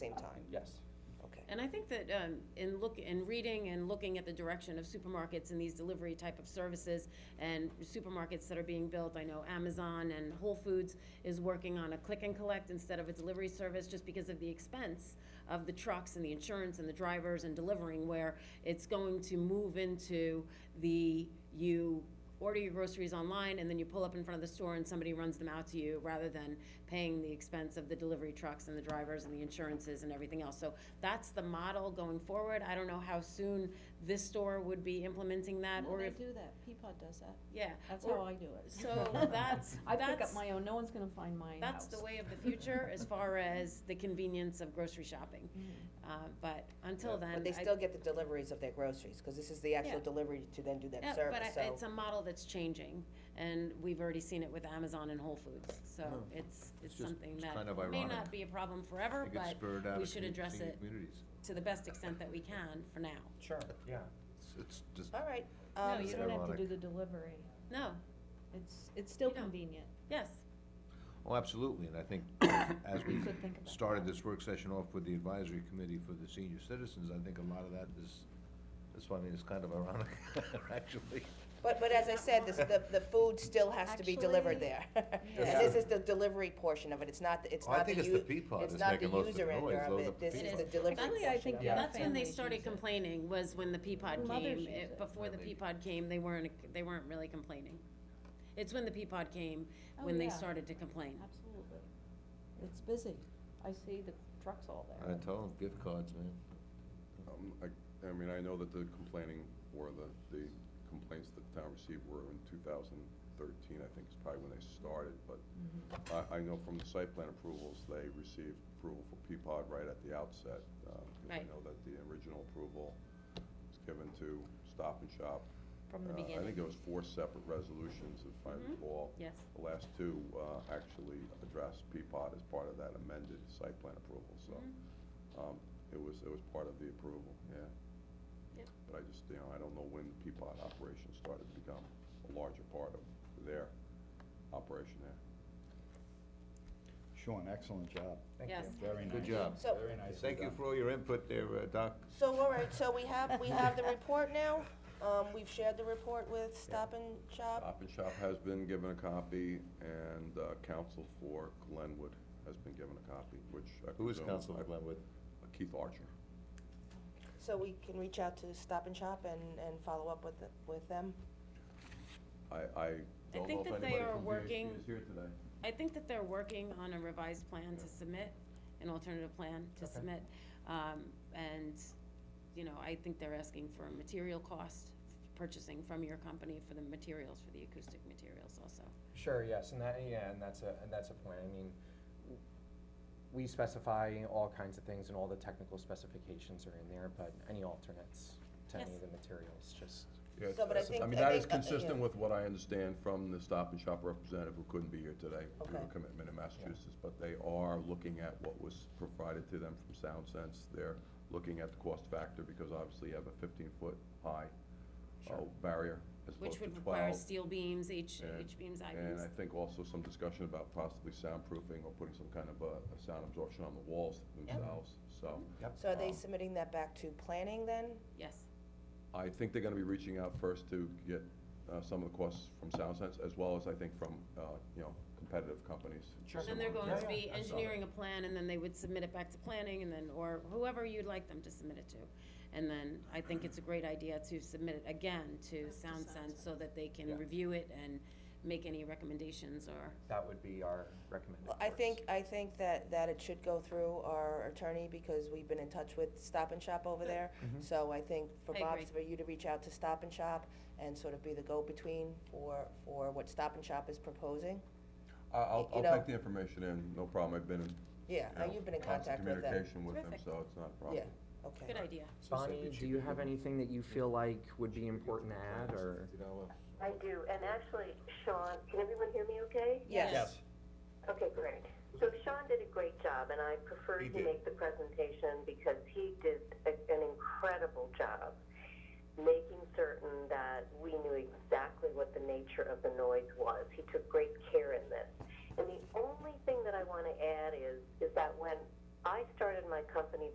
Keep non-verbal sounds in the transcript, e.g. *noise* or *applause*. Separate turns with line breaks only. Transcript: same time?
Yes.
Okay.
And I think that um, in look, in reading and looking at the direction of supermarkets and these delivery type of services and supermarkets that are being built, I know Amazon and Whole Foods is working on a click and collect instead of a delivery service just because of the expense of the trucks and the insurance and the drivers and delivering where it's going to move into the, you order your groceries online and then you pull up in front of the store and somebody runs them out to you rather than paying the expense of the delivery trucks and the drivers and the insurances and everything else. So that's the model going forward. I don't know how soon this store would be implementing that
No,
or
they
if,
do that, Peapod does that,
yeah.
that's
or-
how *laughs* I do it.
So that's,
I pick up
that's,
my own, no one's gonna find my house.
that's the way of the future as far as the convenience of grocery shopping.
Mm.
Uh, But until
Yeah.
then.
But they
I-
still get the deliveries of their groceries, because this is the actual
Yeah.
delivery to then do that
Yeah, but
service,
I- it's
so.
a model that's changing, and we've already seen it with Amazon and Whole Foods, so it's, it's
It's just-
something
it's
that
kind of
may
ironic.
not be a problem forever,
It gets
but
spurred out
we
of
should
commu-
address
senior
it.
communities.
to the best extent that we can for now.
Sure, yeah.
It's- It's just,
All right.
No,
um,
you
it's
don't have to
ironic.
do the delivery,
No,
it's, it's still
You don't.
convenient,
yes,
oh, absolutely, and I
*coughs*
think as
you
we
could think about that.
started this work session off with the advisory committee for the senior citizens, I think a lot of that is, that's why I mean, it's kind of ironic, *laughs* actually.
But, but as I said, this, the, the food still has to be delivered there.
yeah.
And *laughs* this is the delivery portion of it, it's not, the- it's
Oh, I
not the
think
u-
it's the Peapod
it's
that's
not the
making most of the
user end
noise,
of
those are
it,
the
this is
Peapods.
the delivery portion.
Actually, I
think
of it.
Yeah.
that's when they
Families
started
use it.
complaining, was when the Peapod
Mothers
came,
use
It-
it.
before the
Really?
Peapod came, they weren't, they weren't really complaining. It's when the Peapod came,
Oh,
when they
yeah.
started to complain.
absolutely. It's busy, I see the trucks all
I
there.
told them, gift cards, man.
Um, I, I mean, I know that the complaining, or the, the complaints that the town received were in two thousand thirteen, I think is probably when they started, but
Mm-hmm.
I, I know from the site plan approvals, they received approval for Peapod right at the outset. um, 'cause
Right.
I know that the original approval was given to Stop and Shop.
From the
Uh, I
beginning.
think it was four separate resolutions, if I
Mhm.
recall.
Yes.
The last two, uh, actually addressed Peapod as part of that amended site plan approval, so,
Mm-hmm.
um, it was, it was part of the approval, yeah.
Yep.
But I just, you know, I don't know when the Peapod operation started to become a larger part of their operation there.
Sean, excellent job.
Thank
Yes.
you.
Very nice.
Good job.
So-
Very nicely
Thank you
done.
for all your input there, uh, Doc.
So, all right, so we have, we have the report now, um, we've shared the report with Stop and Shop.
Stop and Shop has been given a copy, and uh, counsel for Glenwood has been given a copy, which I
Who is
presume-
Council
I-
Glenwood?
Keith Archer.
So we can reach out to Stop and Shop and, and follow up with, the- with them.
I, I don't know
think
if
that they
anybody
are
from
working-
VHB is here today.
I think that they're working on a revised plan to submit, an alternative plan to
Okay.
submit. Um, and, you know, I think they're asking for a material cost, purchasing from your company for the materials, for the acoustic materials also.
Sure, yes, and that, yeah, and that's a, and that's a point, I mean, w- we specify all kinds of things and all the technical specifications are in there, but any alternates to any
Yes.
of the materials, just,
Yeah,
So, but I
it's-
think-
I mean,
I
that is
think, uh, yeah.
consistent with what I understand from the Stop and Shop representative who couldn't be here today due to
Okay.
a commitment in Massachusetts. But they are looking at what was provided to them from Sound Sense. They're looking at the cost factor because obviously you have a fifteen-foot high uh,
Sure.
barrier as opposed
Which
to twelve.
would require steel beams, H,
and-
H beams, I
And
beams.
I think also some discussion about possibly soundproofing or putting some kind of a a sound absorption on the walls themselves, so.
So are they
Um,
submitting that back to planning then?
Yes,
I think they're gonna be reaching out first to get uh, some of the costs from Sound Sense, as well as I think from, uh, you know, competitive companies.
Sure.
then they're
Similar.
going
Yeah,
to
yeah,
be
I saw
engineering a plan, and then they would submit it back to planning, and then, or whoever you'd like them to submit it to. And then I think it's a great idea to submit it again to Sound Sense, so that they
Yeah.
can review it and make any recommendations or
that would be our recommended
Well, I
course.
think, I think that, that it should go through our attorney, because we've been in touch with Stop and Shop over there. So I think for
I
Bob,
agree.
for you to reach out to Stop and Shop and sort of be the go-between for, for what Stop and Shop is proposing.
I- I'll,
you
I'll
know-
take the information in, no problem, I've been in,
Yeah,
you
now
know,
you've been in
constant
contact with them.
communication with them,
Terrific.
so it's not a
Yeah,
problem.
okay.
Good idea.
Bonnie, do you have anything that you feel like would be important to add, or?
I do, and actually, Sean, can everyone hear me okay?
Yes.
Okay, great. So Sean did a great job, and I preferred to make the presentation because he did a- an incredible job making certain that we knew exactly what the nature of the noise was. He took great care in this. And the only thing that I want to add is, is that when I started my company